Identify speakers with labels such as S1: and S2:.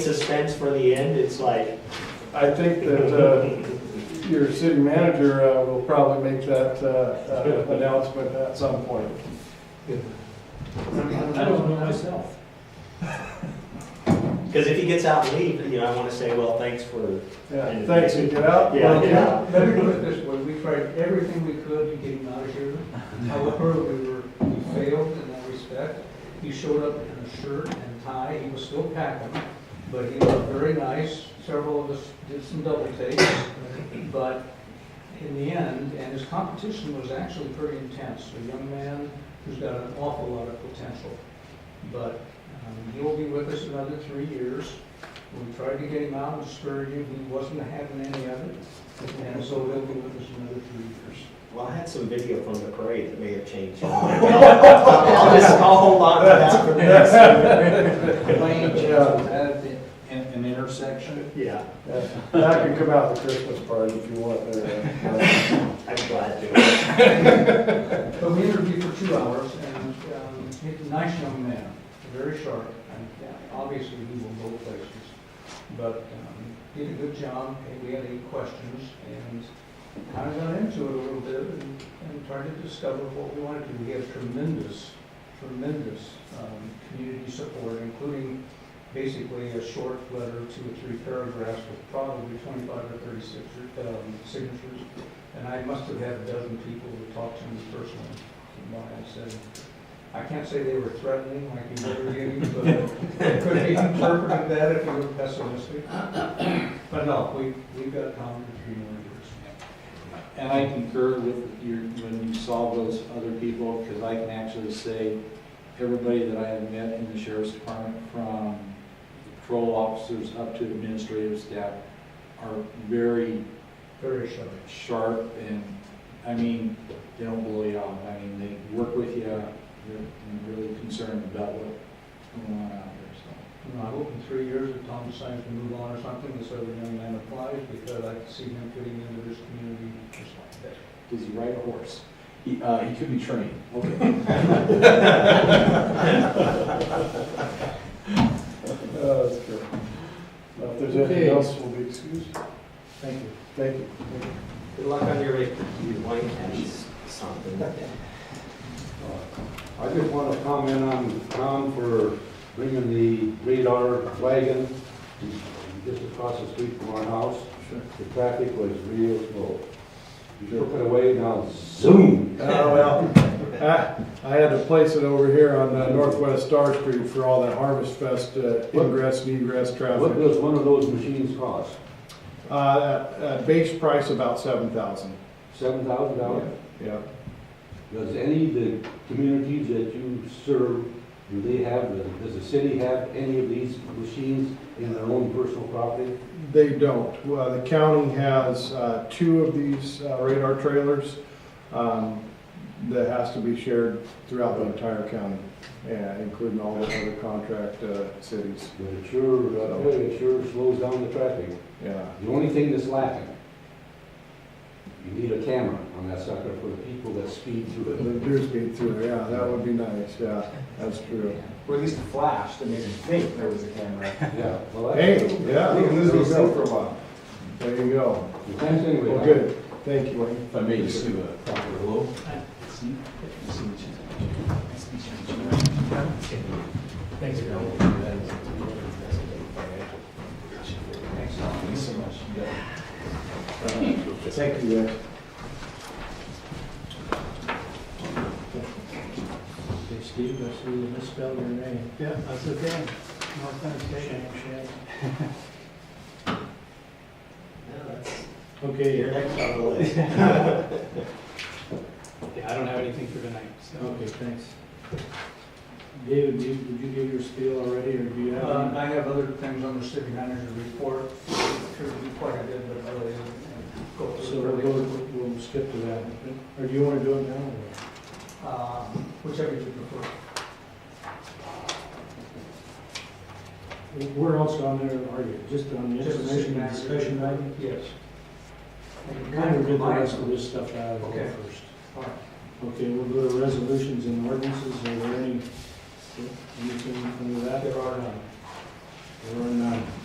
S1: suspense for the end, it's like,
S2: I think that uh, your city manager uh, will probably make that uh, uh, announcement at some point.
S3: I don't know myself.
S1: because if he gets out and leaves, you know, I want to say, well, thanks for,
S2: Yeah, thanks, you get out.
S1: Yeah.
S3: Well, Let me put it this way, we tried everything we could to get him out of here. However, we were, we failed in that respect. He showed up in a shirt and tie, he was still packing, but he was very nice. Several of us did some double takes, but in the end, and his competition was actually pretty intense. A young man who's got an awful lot of potential. But um, he'll be with us another three years. We tried to get him out and spur him, he wasn't having any of it. And so he'll be with us another three years.
S1: well, I had some video from the parade that may have changed. I'll just, I'll hold on to that for next.
S3: Lane change was added
S4: An, an intersection?
S1: Yeah,
S2: Yeah, That can come out the Christmas party if you want. there. Uh,
S1: I'm glad to.
S3: in. But we interviewed for two hours and um, he's a nice young man, very sharp. And uh, obviously he will go places. But um, did a good job, and we had eight questions and kind of got into it a little bit and and tried to discover what we wanted to. We had tremendous, tremendous um, community support, including basically a short letter, two or three paragraphs with probably 25 or 36 um, signatures. And I must have had a dozen people who talked to me personally. And I said, I can't say they were threatening like you were getting, but it could be interpreted that if you were pessimistic. But no, we, we've got Tom for three more years.
S4: And I concur with your, when you saw those other people, because I can actually say, everybody that I have met in the sheriff's department, from patrol officers up to administrative staff, are very
S3: Very sharp.
S4: sharp and, I mean, they don't blow you off. I mean, they work with you, they're they're really concerned about what's going on out there, so.
S3: You know, I hope in three years that Tom decides to move on or something, this other young man applies, because I can see him fitting into this community just like that.
S4: Does he ride a horse? He, uh, he could be trained. Okay.
S2: Oh, That's good. Now, If there's anything
S4: Okay.
S2: else, we'll be excused.
S4: Thank you.
S2: Thank you.
S1: Good luck on your, your white hats, something.
S5: I just want to comment on Tom for bringing the radar wagon just across the street from our house.
S4: Sure.
S5: The traffic was real slow. You took it away now, zoom!
S2: Oh, well, I I had to place it over here on uh, Northwest Star Street for all that Harvest Fest uh, ingress, and egress
S5: What
S2: traffic.
S5: does one of those machines cost?
S2: Uh, uh, Base price about seven thousand,
S5: Seven thousand dollars?
S2: yeah.
S5: Does any of the communities that you serve, do they have, does the city have any of these machines in their own personal property?
S2: They don't. Well, the county has uh, two of these uh, radar trailers um, that has to be shared throughout the entire county, yeah, including all the other contract uh, cities,
S5: But it sure, uh, it sure slows down the traffic.
S2: yeah.
S5: The only thing that's lacking, you need a camera on that sucker for the people that speed through it.
S2: The deer speed through, there, yeah, that would be nice, yeah, that's true.
S4: Or at least a flash to make them think there was a camera.
S5: Yeah, well, that's.
S2: Hey, yeah, there you go.
S5: a while.
S2: There you go.
S5: Thanks anyway.
S2: Well, good, thank you, Wayne.
S6: If I may just do a proper hello. See, see what you- nice to meet you. Thanks, Bill. Thanks so much. You got it.
S2: Thank you, guys.
S3: Hey, Steve, I see you misspelled your name. Yeah. That's okay. No offense, Shane.
S1: No, that's-
S3: Okay,
S1: You're next on the list.
S3: Yeah, I don't have anything for tonight, so. Okay, thanks. David, did you, did you give your spiel already, or do you have? Um, I have other things on the city manager report, sure be quite a bit, but really. So we'll, we'll skip to that, or do you wanna do it now? Uh, whichever you prefer.
S7: Where else on there are you? Just on the
S3: Just the city
S7: information and
S3: manager.
S7: discussion item?
S3: Yes.
S7: Kind of get the rest of this stuff out of the way
S3: Okay.
S7: first.
S3: All right.
S7: Okay, we'll go to resolutions and ordinances. Are there any, anything under that?
S3: There are none.
S7: There are none.